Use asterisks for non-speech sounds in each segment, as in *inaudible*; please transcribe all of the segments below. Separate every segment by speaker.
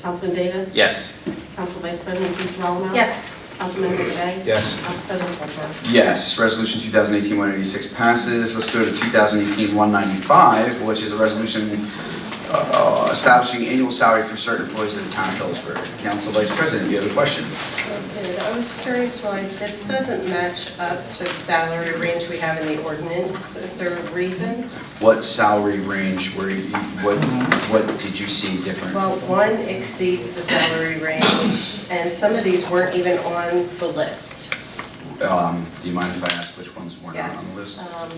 Speaker 1: Councilman Davis?
Speaker 2: Yes.
Speaker 1: Council Vice President Giralamo?
Speaker 3: Yes.
Speaker 1: Councilmember Day?
Speaker 2: Yes.
Speaker 1: Council President Polk?
Speaker 4: Yes, Resolution 2018-186 passes. Let's go to 2018-195, which is a resolution uh, establishing annual salary for certain employees of the town of Phillipsburg. Council Vice President, do you have a question?
Speaker 3: Okay, I was curious why this doesn't match up to the salary range we have in the ordinance. Is there a reason?
Speaker 4: What salary range were you, what, what did you see different?
Speaker 3: Well, one exceeds the salary range, and some of these weren't even on the list.
Speaker 4: Um, Do you mind if I ask which ones were not
Speaker 3: Yes.
Speaker 4: on the list?
Speaker 3: Um,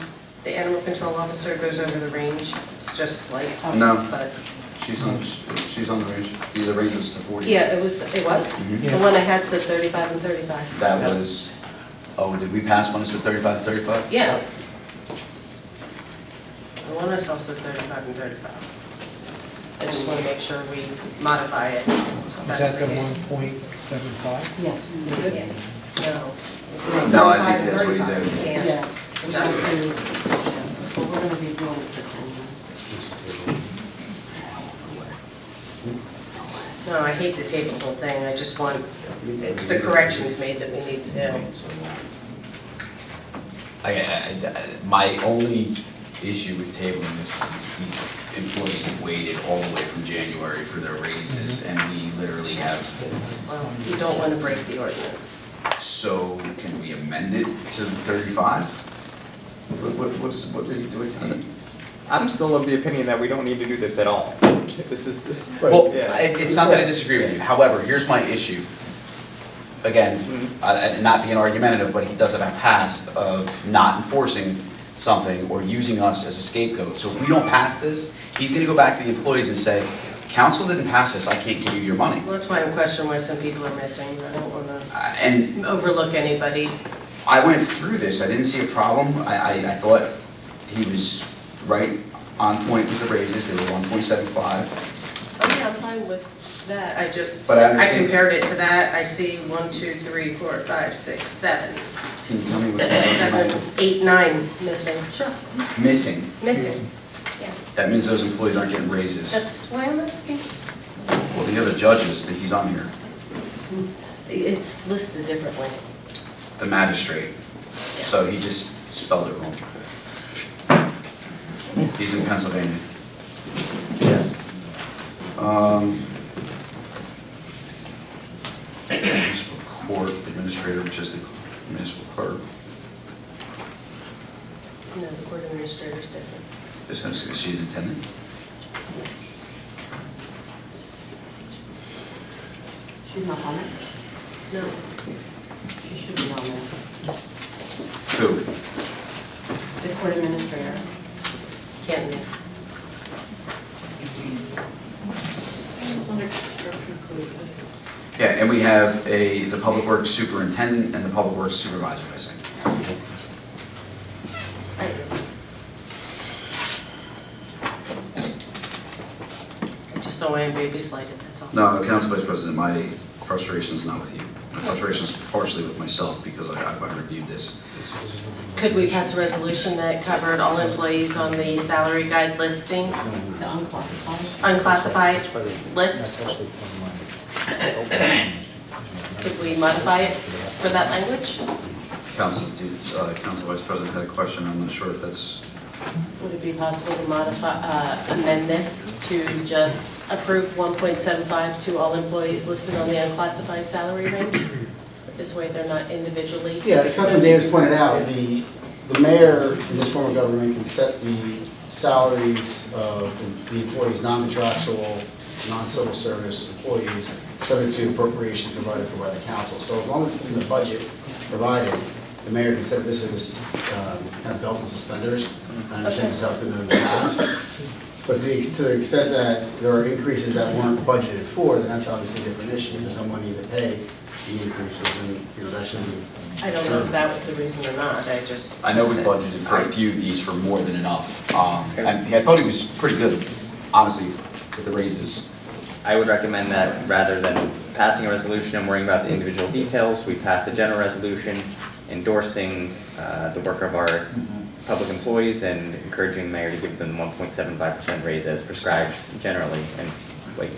Speaker 3: The animal control officer goes over the range, it's just like.
Speaker 4: No.
Speaker 3: but-
Speaker 4: She's on, she's on the range, the range was the 40.
Speaker 3: Yeah, it was, it was.
Speaker 4: Mhm.
Speaker 3: The one I had said 35 and 35.
Speaker 4: That was, oh, did we pass one that said 35 to 35?
Speaker 3: Yeah. I want us also 35 and 35. I just want to make sure we modify it.
Speaker 5: Is that the one point seven five?
Speaker 6: Yes.
Speaker 3: No.
Speaker 4: No, I think that's what he did.
Speaker 3: Yeah.
Speaker 6: We're gonna be- yeah, But we're gonna be doing it for ten years.
Speaker 3: No, I hate to table the whole thing, I just want the corrections made that we need to do.
Speaker 2: I- I- I- My only issue with tabling this is these employees have waited all the way from January for their raises, and we literally have,
Speaker 3: Well, You don't want to break the ordinance.
Speaker 4: So can we amend it to 35? What, what, what is, what did he do it to?
Speaker 7: I'm still of the opinion that we don't need to do this at all. *laughs* This is.
Speaker 2: Well,
Speaker 7: Yeah.
Speaker 2: I- it's not that I disagree with you, however, here's my issue. Again,
Speaker 3: Mm-hmm.
Speaker 2: uh, and not being argumentative, but he does have a past of not enforcing something or using us as a scapegoat. So if we don't pass this, he's gonna go back to the employees and say, council didn't pass this, I can't give you your money.
Speaker 3: Well, That's why I'm questioning why some people are missing, I don't want to
Speaker 4: Uh, And
Speaker 3: overlook anybody.
Speaker 4: I went through this, I didn't see a problem, I, I, I thought he was right on point with the raises, they were 1.75.
Speaker 3: Oh, yeah, I'm fine with that, I just,
Speaker 4: But I
Speaker 3: I
Speaker 4: understand-
Speaker 3: compared it to that, I see one, two, three, four, five, six, seven,
Speaker 4: Can you tell me what
Speaker 3: seven,
Speaker 4: was
Speaker 3: eight, nine missing. Sure.
Speaker 4: missing?
Speaker 3: Missing,
Speaker 4: Hmm.
Speaker 3: yes.
Speaker 4: That means those employees aren't getting raises.
Speaker 3: That's why I'm asking.
Speaker 4: Well, the other judges, that he's on here,
Speaker 3: It's listed differently.
Speaker 4: the magistrate, so he just spelled it wrong. He's in Pennsylvania.
Speaker 7: Yes.
Speaker 4: Um, Municipal court administrator, which is the municipal clerk,
Speaker 3: No, the court administrator's different.
Speaker 4: this is, she's intended.
Speaker 6: She's not on it.
Speaker 3: No.
Speaker 6: She should be on it.
Speaker 4: Who?
Speaker 6: The court administrator.
Speaker 3: Can't be.
Speaker 4: Yeah, and we have a, the public works superintendent and the public works supervisor missing.
Speaker 3: I- I just don't want anybody to be slighted, that's all.
Speaker 4: No, Council Vice President, my frustration is not with you. My frustration is partially with myself because I, I reviewed this.
Speaker 3: Could we pass a resolution that covered all employees on the salary guide listing,
Speaker 6: The unclassified.
Speaker 3: unclassified list?
Speaker 5: That's actually on my.
Speaker 3: Could we modify it for that language?
Speaker 4: Council, uh, Council Vice President had a question, I'm not sure if that's
Speaker 3: Would it be possible to modify, uh, amend this to just approve 1.75 to all employees listed on the unclassified salary range? This way they're not individually.
Speaker 8: Yeah, as Councilman Davis pointed out, the, the mayor in this form of government can set the salaries of the employees, non-contractual, non-civil service employees, subject to appropriation provided for by the council. So as long as it's in the budget provided, the mayor can set this as um, kind of belts and suspenders. I understand this has been done in the past. But to the ex- to the extent that there are increases that weren't budgeted for, then that's obviously a different issue. There's no money to pay the increases, and, you know, that shouldn't be
Speaker 3: I don't know if that was the reason or not, I just.
Speaker 2: I know we budgeted for a few of these for more than enough, um, and I thought he was pretty good, honestly, with the raises.
Speaker 7: I would recommend that rather than passing a resolution and worrying about the individual details, we pass a general resolution endorsing uh, the work of our
Speaker 2: Mm-hmm.
Speaker 7: public employees and encouraging mayor to give them 1.75% raise as prescribed generally, and